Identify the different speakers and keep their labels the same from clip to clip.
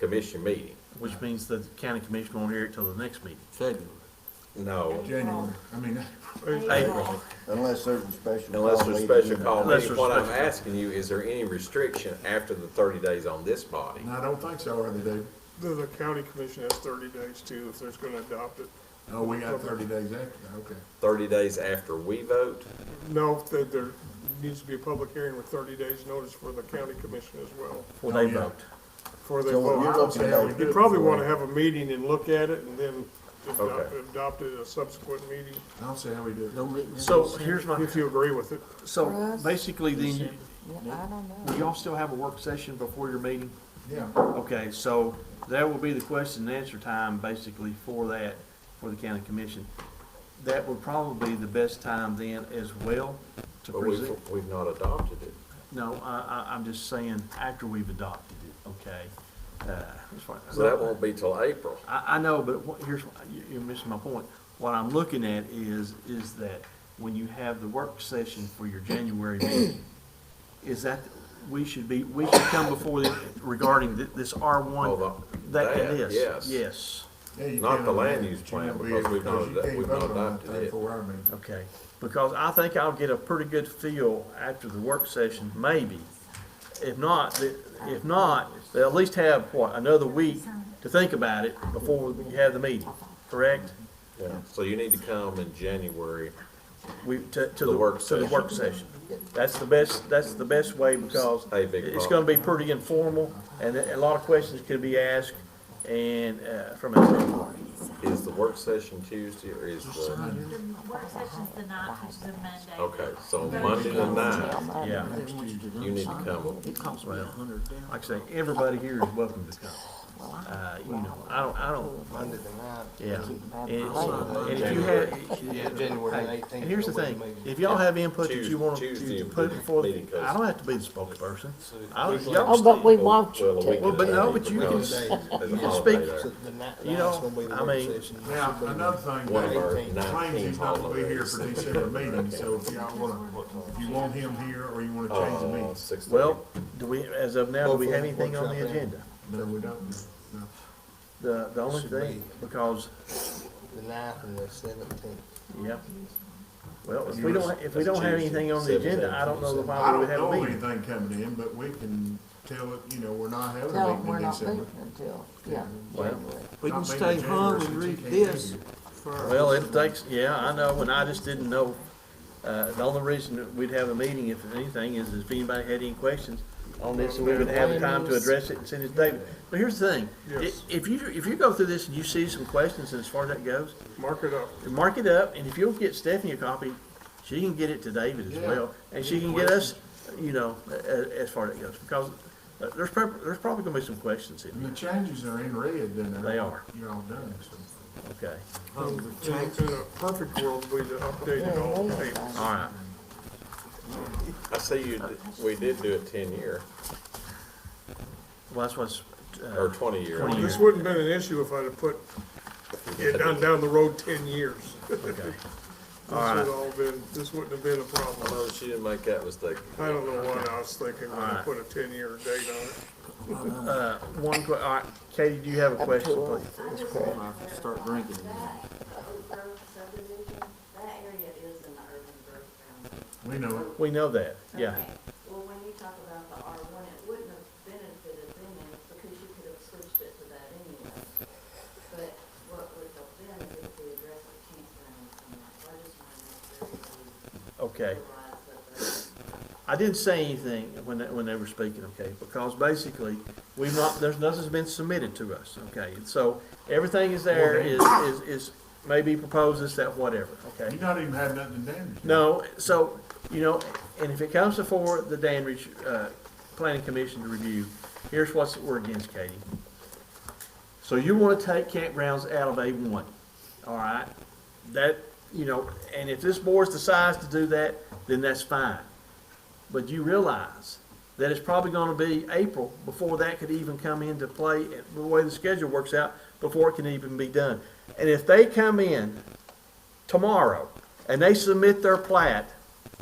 Speaker 1: commission meeting.
Speaker 2: which means the county commission won't hear it till the next meeting.
Speaker 3: February.
Speaker 1: No,
Speaker 4: January, I mean,
Speaker 2: April.
Speaker 5: Unless there's a special.
Speaker 1: unless
Speaker 5: call
Speaker 1: there's a
Speaker 5: needed,
Speaker 1: special
Speaker 5: you know.
Speaker 1: call
Speaker 2: Unless
Speaker 1: meeting.
Speaker 2: there's
Speaker 1: What I'm
Speaker 2: special call.
Speaker 1: asking you, is there any restriction after the thirty days on this body?
Speaker 4: and I don't think so, are they, David?
Speaker 6: The, the county commission has thirty days too, if there's gonna adopt it.
Speaker 4: Oh, we got thirty days after, that, okay.
Speaker 1: Thirty days after we vote?
Speaker 6: No, that there needs to be a public hearing with thirty days notice for the county commission as well,
Speaker 2: Before they
Speaker 4: yeah.
Speaker 2: vote.
Speaker 6: before they
Speaker 5: So what you're
Speaker 6: vote.
Speaker 4: don't
Speaker 5: looking
Speaker 4: see how we
Speaker 5: at,
Speaker 4: do
Speaker 6: You
Speaker 4: it
Speaker 6: probably
Speaker 4: before-
Speaker 6: wanna have a meeting and look at it and then adopt,
Speaker 1: Okay.
Speaker 6: adopt it at a subsequent meeting,
Speaker 4: I don't see how we do it.
Speaker 3: Don't let me-
Speaker 2: So here's my,
Speaker 6: if you agree with it.
Speaker 2: so basically then, you-
Speaker 7: I don't know.
Speaker 2: will y'all still have a work session before your meeting?
Speaker 4: Yeah,
Speaker 2: Okay, so that will be the question and answer time basically for that, for the county commission. That would probably be the best time then as well to
Speaker 1: But we've,
Speaker 2: present.
Speaker 1: we've not adopted it.
Speaker 2: No, I, I, I'm just saying after we've adopted it, okay? Uh, that's fine.
Speaker 1: So that won't be till April.
Speaker 2: I, I know, but what, here's, you- you're missing my point. What I'm looking at is, is that when you have the work session for your January meeting, is that, we should be, we should come before the, regarding thi- this R one,
Speaker 1: Hold on.
Speaker 2: that,
Speaker 1: Oh, That,
Speaker 2: this,
Speaker 1: yes.
Speaker 2: yes,
Speaker 4: yeah, you
Speaker 1: Not
Speaker 4: can,
Speaker 1: the
Speaker 4: I mean,
Speaker 1: land use
Speaker 4: you
Speaker 1: plan,
Speaker 4: can't be-
Speaker 1: because we've not
Speaker 4: you
Speaker 1: ad-
Speaker 4: can't
Speaker 1: we've
Speaker 4: vote
Speaker 1: not
Speaker 4: on that
Speaker 1: adopted
Speaker 4: thing
Speaker 1: it.
Speaker 4: Before our meeting.
Speaker 2: okay. Because I think I'll get a pretty good feel after the work session, maybe. If not, the- if not, they'll at least have, what, another week to think about it before we have the meeting, correct?
Speaker 1: Yeah. So you need to come in January.
Speaker 2: We, to, to
Speaker 1: The
Speaker 2: the,
Speaker 1: work
Speaker 2: to the work session. That's the best, that's the best way because
Speaker 1: Hey, big
Speaker 2: it's
Speaker 1: Pop.
Speaker 2: gonna be pretty informal and a a lot of questions could be asked and, uh, from that standpoint.
Speaker 1: Is the work session Tuesday or is the,
Speaker 4: Sign
Speaker 8: The work session's the ninth, which is a Monday.
Speaker 1: okay, so Monday the ninth,
Speaker 2: Yeah,
Speaker 4: it next Tuesday.
Speaker 1: you need to come.
Speaker 3: It cost me a hundred down.
Speaker 2: like I say, everybody here is welcome to come. Uh, you know, I don't, I don't,
Speaker 9: Monday the ninth.
Speaker 2: yeah. And, uh, and if you
Speaker 9: January-
Speaker 2: have,
Speaker 9: Yeah, January
Speaker 2: hey,
Speaker 9: eighteenth.
Speaker 2: and here's the thing, if y'all have input that you want to
Speaker 1: Tuesday
Speaker 2: to put before,
Speaker 1: meeting goes-
Speaker 2: I don't have to be the spokesperson. I,
Speaker 7: Oh,
Speaker 2: y'all,
Speaker 7: but we want you
Speaker 1: Well, a week
Speaker 7: to.
Speaker 2: Well, but
Speaker 1: and a
Speaker 2: no,
Speaker 1: half
Speaker 2: but you
Speaker 1: because
Speaker 2: can
Speaker 1: it's
Speaker 2: s-
Speaker 1: a
Speaker 2: speak.
Speaker 1: holiday there.
Speaker 2: you know, I mean,
Speaker 4: Now, another
Speaker 1: One of
Speaker 4: thing,
Speaker 1: our
Speaker 9: Claims
Speaker 4: claims
Speaker 1: nineteen
Speaker 4: he's not gonna be here
Speaker 1: holidays.
Speaker 4: for December meeting, so if y'all wanna, if you want him here or you wanna change the
Speaker 1: Uh,
Speaker 4: meeting,
Speaker 1: six.
Speaker 2: well, do we, as of now, do we have anything on the agenda?
Speaker 4: no, we don't, no.
Speaker 2: The, the only thing, because,
Speaker 9: The ninth and the seventeenth.
Speaker 2: yeah. Well, if we don't, if we don't have anything on the agenda, I don't know
Speaker 4: I
Speaker 2: why we
Speaker 4: don't
Speaker 2: would have
Speaker 4: know
Speaker 2: a meeting.
Speaker 4: anything coming in, but we can tell it, you know, we're not having
Speaker 7: Tell
Speaker 4: a
Speaker 7: them
Speaker 4: meeting
Speaker 7: we're
Speaker 4: in
Speaker 7: not
Speaker 4: December.
Speaker 7: leaving until, yeah,
Speaker 2: Well-
Speaker 7: January.
Speaker 3: We
Speaker 4: Not
Speaker 3: can
Speaker 4: being
Speaker 3: stay
Speaker 4: in
Speaker 3: home
Speaker 4: January
Speaker 3: and
Speaker 4: since
Speaker 3: read
Speaker 4: you can't do
Speaker 3: this
Speaker 4: it.
Speaker 3: for.
Speaker 2: Well, it takes, yeah, I know, and I just didn't know, uh, the only reason that we'd have a meeting, if anything, is if anybody had any questions on this, and we would have the time to address it and send it to David. But here's the thing, i-
Speaker 6: Yes.
Speaker 2: if you, if you go through this and you see some questions, and as far as that goes,
Speaker 6: Mark it up.
Speaker 2: mark it up, and if you'll get Stephanie a copy, she can get it to David as
Speaker 4: Yeah.
Speaker 2: well, and she can get us, you know, as, as far as it goes, because uh, there's prob- there's probably gonna be some questions in
Speaker 4: And
Speaker 2: there,
Speaker 4: the changes are in red, then they're.
Speaker 2: They are.
Speaker 4: You're all done, so.
Speaker 2: okay? Um,
Speaker 6: In a perfect world, we'd update it all the papers.
Speaker 2: All right,
Speaker 1: I see you, d- we did do it ten year,
Speaker 2: well, that's what's,
Speaker 1: or
Speaker 2: uh,
Speaker 1: twenty year.
Speaker 2: 20
Speaker 6: This wouldn't have been an issue if I'd have put it down, down the road ten years. This
Speaker 2: okay.
Speaker 6: would all been, this wouldn't have been a
Speaker 1: I
Speaker 6: problem.
Speaker 1: know she didn't make that mistake.
Speaker 6: I don't know why I was thinking when I
Speaker 2: Alright.
Speaker 6: put a ten-year date on it.
Speaker 2: Uh, one que- all right, Katie, do you have a
Speaker 7: Up
Speaker 2: question,
Speaker 7: to us.
Speaker 2: please?
Speaker 7: That's correct.
Speaker 3: Start drinking again.
Speaker 10: Grove subdivision, that area is in the urban
Speaker 4: We
Speaker 10: growth boundary.
Speaker 4: know it.
Speaker 2: We know that, yeah,
Speaker 10: Okay. Well, when you talk about the R one, it wouldn't have benefited them any, because you could have switched it to that anyway. But what would have been is if we addressed the campground and that, so I just wanted to make sure that
Speaker 2: okay.
Speaker 10: we realized that the
Speaker 2: I didn't say anything when, they- when they were speaking, okay, because basically, we've not, there's, nothing's been submitted to us, okay? And so, everything is there, is, is, is maybe proposed, is that whatever, okay?
Speaker 4: You not even have nothing to damage.
Speaker 2: No, so, you know, and if it comes before the Danbridge, uh, Planning Commission to review, here's what's, we're against, Katie. So you wanna take campgrounds out of A one, all right? That, you know, and if this board decides to do that, then that's fine. But you realize that it's probably gonna be April before that could even come into play, the way the schedule works out, before it can even be done. And if they come in tomorrow and they submit their plat,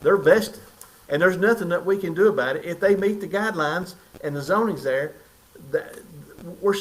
Speaker 2: they're vested. And there's nothing that we can do about it. If they meet the guidelines and the zoning's there, that, we're